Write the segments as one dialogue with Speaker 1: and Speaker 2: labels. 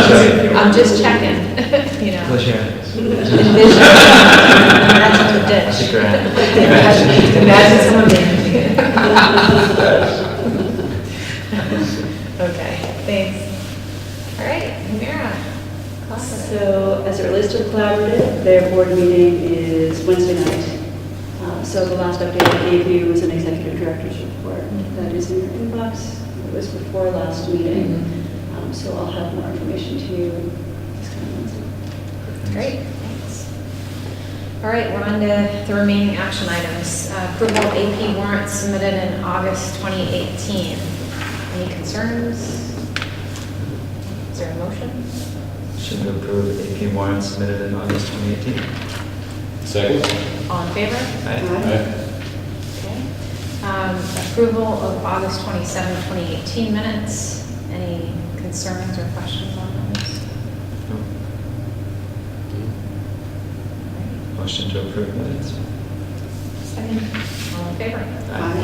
Speaker 1: I'm just checking, you know.
Speaker 2: Close your eyes.
Speaker 3: Envision, imagine the ditch.
Speaker 2: That's a grand.
Speaker 3: Imagine imagine someone managing it.
Speaker 1: Okay, thanks. All right, Mira. collaborative.
Speaker 4: So as it relates to the collaborative, their board meeting is Wednesday night. Uh, So the last update I gave you was an executive director's report that is in your inbox. It was before last meeting. Um, So I'll have more information to you this coming Wednesday.
Speaker 1: Great, thanks. All right, we're on to the remaining action items. Uh, Approval of AP warrants submitted in August 2018. Any concerns? Is there a motion?
Speaker 2: Should we approve AP warrant submitted in August 2018?
Speaker 5: Second?
Speaker 1: All in favor?
Speaker 2: Aye.
Speaker 5: Aye.
Speaker 1: Okay. Um, Approval of August 27, 2018 minutes. Any concerns or questions on those?
Speaker 2: No.
Speaker 1: All right.
Speaker 2: Motion to approve minutes?
Speaker 1: All in favor?
Speaker 5: Aye.
Speaker 1: All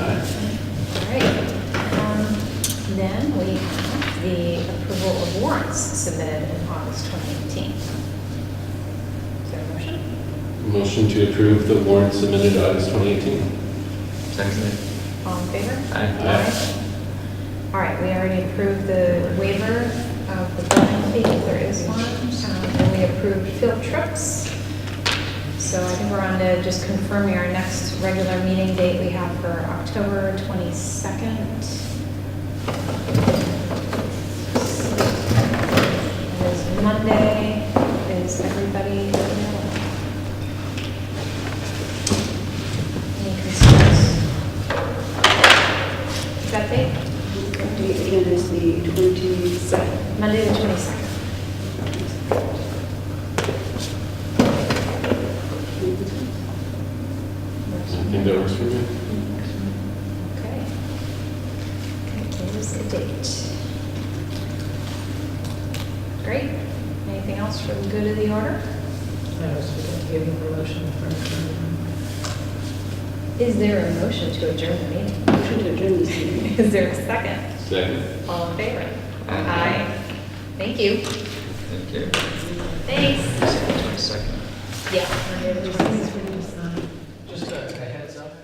Speaker 1: right. Um, Then we have the approval of warrants submitted in August 2018. Is there a motion?
Speaker 5: Motion to approve the warrant submitted August 2018.
Speaker 2: Second.
Speaker 1: All in favor?
Speaker 2: Aye.
Speaker 5: Aye.
Speaker 1: All right, we already approved the waiver of the building fee, if there is one. Um, And we approved field trips. So I think we're on to just confirming our next regular meeting date we have for October 22nd. Is Monday, is everybody available? Any concerns? Is that date?
Speaker 4: Date again is the 27th.
Speaker 1: Monday, the 22nd.
Speaker 5: I think that works for me.
Speaker 1: Okay. Okay, There's the date. Great. Anything else for the good of the order?
Speaker 3: I was giving promotion for.
Speaker 1: Is there a motion to adjourn the meeting?
Speaker 4: Motion to adjourn this meeting.
Speaker 1: Is there a second?
Speaker 5: Second?
Speaker 1: All in favor?
Speaker 2: Aye.
Speaker 1: Thank you.
Speaker 2: Thank you.
Speaker 1: Thanks.
Speaker 2: Second.
Speaker 1: Yeah.
Speaker 3: Just a heads up,